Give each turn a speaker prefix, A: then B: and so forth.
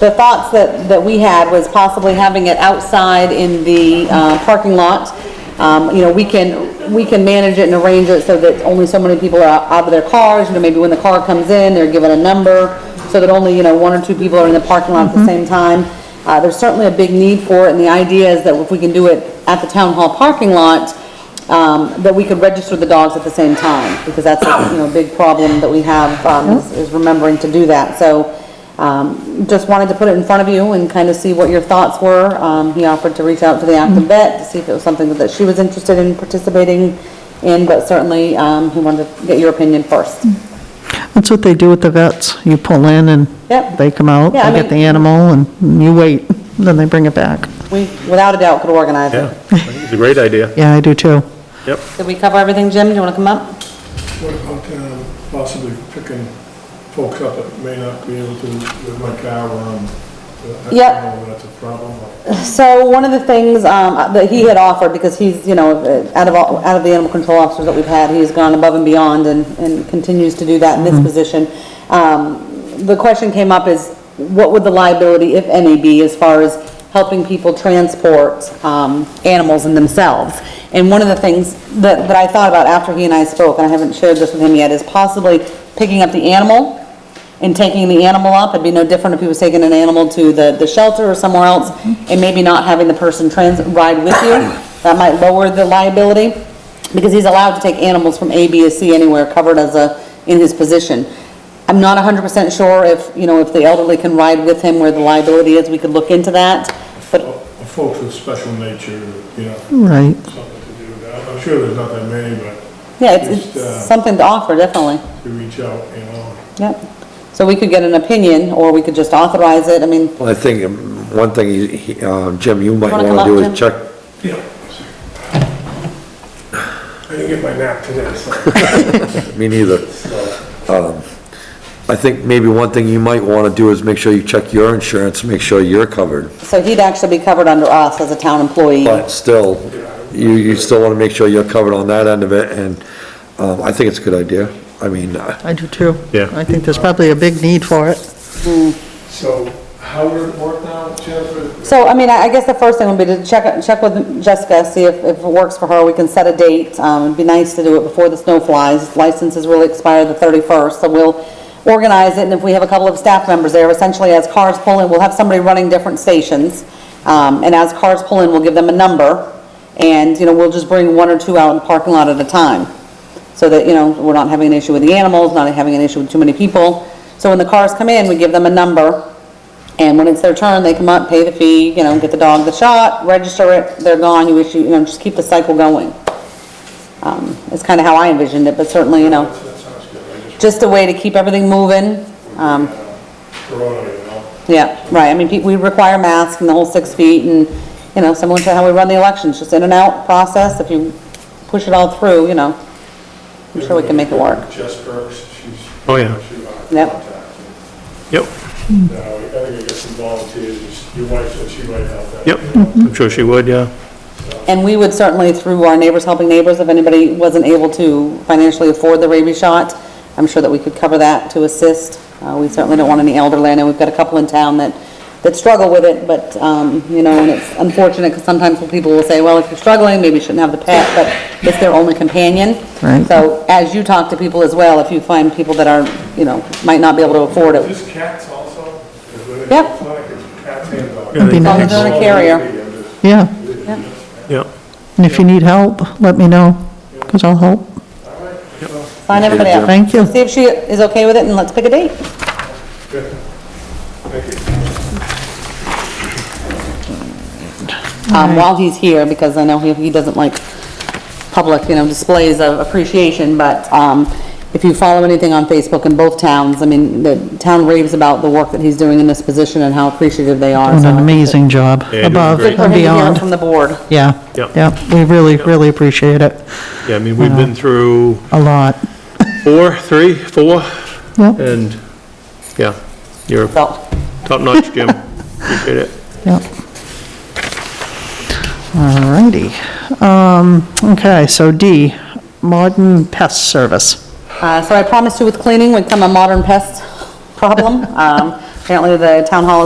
A: the thoughts that, that we had was possibly having it outside in the uh, parking lot. Um, You know, we can, we can manage it and arrange it so that only so many people are out of their cars, you know, maybe when the car comes in, they're given a number, so that only, you know, one or two people are in the parking lot at the same time. Uh, There's certainly a big need for it, and the idea is that if we can do it at the town hall parking lot, um, that we could register the dogs at the same time, because that's, you know, a big problem that we have, um, is- is remembering to do that. So, um, just wanted to put it in front of you and kind of see what your thoughts were. Um, he offered to reach out to the active vet to see if it was something that she was interested in participating in, but certainly, um, he wanted to get your opinion first.
B: That's what they do with the vets. You pull in and
A: Yep.
B: they come out,
A: Yeah, I
B: they get the
A: mean-
B: animal, and you wait, then they bring it back.
A: We, without a doubt, could organize
C: Yeah,
A: it.
C: I think it's a great idea.
B: Yeah, I do too.
C: Yep.
A: Did we cover everything, Jim? Do you want to come up?
D: What about um, possibly picking folks up that may not be able to, with my car um I don't
A: Yep.
D: know if That's a problem.
A: So one of the things um, that he had offered, because he's, you know, uh, out of, all- out of the animal control officers that we've had, he's gone above and beyond and, and continues to do that in this position. Um, The question came up is, what would the liability, if any, be as far as helping people transport um, animals and themselves? And one of the things that, that I thought about after he and I spoke, and I haven't shared this with him yet, is possibly picking up the animal and taking the animal up, it'd be no different if he was taking an animal to the, the shelter or somewhere else, and maybe not having the person trans, ride with you, that might lower the liability, because he's allowed to take animals from A, B, or C anywhere covered as a, in his position. I'm not hundred percent sure if, you know, if the elderly can ride with him where the liability is, we could look into that, but,
D: Or Folks with special nature, you know,
B: Right.
D: something to do with that. I'm sure there's not that many, but
A: yeah, it's,
D: Just, uh,
A: it's something to offer, definitely.
D: to reach out, you know.
A: Yep. So we could get an opinion, or we could just authorize it, I mean,
E: Well, I think um, one thing, he- he, um, Jim, you might
A: Wanna come
E: want to do
A: up,
E: is check,
D: Yeah. I didn't get my nap today, so.
E: me neither. Um, I think maybe one thing you might want to do is make sure you check your insurance, make sure you're covered.
A: so he'd actually be covered under us as a town employee.
E: But still, you, you still want to make sure you're covered on that end of it, and um, I think it's a good idea. I mean, uh,
B: I do too.
C: Yeah.
B: I think there's probably a big need for it.
D: So how would it work now, Jennifer?
A: So, I mean, I I guess the first thing would be to check, check with Jessica, see if, if it works for her, we can set a date. Um, it'd be nice to do it before the snow flies, licenses really expire the thirty-first, so we'll organize it, and if we have a couple of staff members there, essentially as cars pull in, we'll have somebody running different stations. Um, and as cars pull in, we'll give them a number, and, you know, we'll just bring one or two out in the parking lot at a time so that, you know, we're not having an issue with the animals, not having an issue with too many people. So when the cars come in, we give them a number, and when it's their turn, they come up, pay the fee, you know, get the dog the shot, register it, they're gone, you issue, you know, just keep the cycle going. Um, it's kind of how I envisioned it, but certainly, you know,
D: That sounds good. I just,
A: just a way to keep everything moving. Um,
D: Corona, you know.
A: yeah, right, I mean, pe- we require masks and the whole six feet and, you know, similar to how we run the elections, just in and out process, if you push it all through, you know, I'm sure we can make it work.
D: Jess Burks, she's.
C: Oh, yeah.
D: she's our
A: Yep.
D: contact.
C: Yep,
D: Now, I think we get some volunteers, your wife said she might help out.
C: yep, I'm sure she would, yeah.
A: And we would certainly, through our Neighbors Helping Neighbors, if anybody wasn't able to financially afford the rabies shot, I'm sure that we could cover that to assist. Uh, we certainly don't want any elderly, I know we've got a couple in town that, that struggle with it, but, um, you know, and it's unfortunate, because sometimes people will say, well, if you're struggling, maybe you shouldn't have the pet, but it's their only companion.
B: Right.
A: So as you talk to people as well, if you find people that are, you know, might not be able to afford it,
D: Is this cats also? Is it-
A: Yep.
D: It's not like it's Cats and dogs.
C: It'd be
B: As long
A: as they're a carrier.
B: Yeah.
C: Yep,
B: And if you need help, let me know, because I'll help.
A: sign everybody up.
B: Thank you.
A: See if she is okay with it, and let's pick a date.
D: Thank you.
A: um, while he's here, because I know he, he doesn't like public, you know, displays of appreciation, but, um, if you follow anything on Facebook in both towns, I mean, the town raves about the work that he's doing in this position and how appreciative they are.
B: Doing
A: so I
B: an
A: think
B: amazing job,
C: you're doing
B: above
C: great.
A: For
B: and
A: him to hear it
B: beyond.
A: From the board.
B: Yeah.
C: Yep.
B: Yeah, we really, really appreciate it,
C: yeah, I mean, we've been through
B: a lot.
C: four, three, four,
B: Yep,
C: and, yeah, you're
A: So,
C: top notch, Jim. Appreciate it.
B: yep. All righty. Um, okay, so D, modern pest service.
A: uh, so I promised you with cleaning would come a modern pest problem. Um, apparently the town hall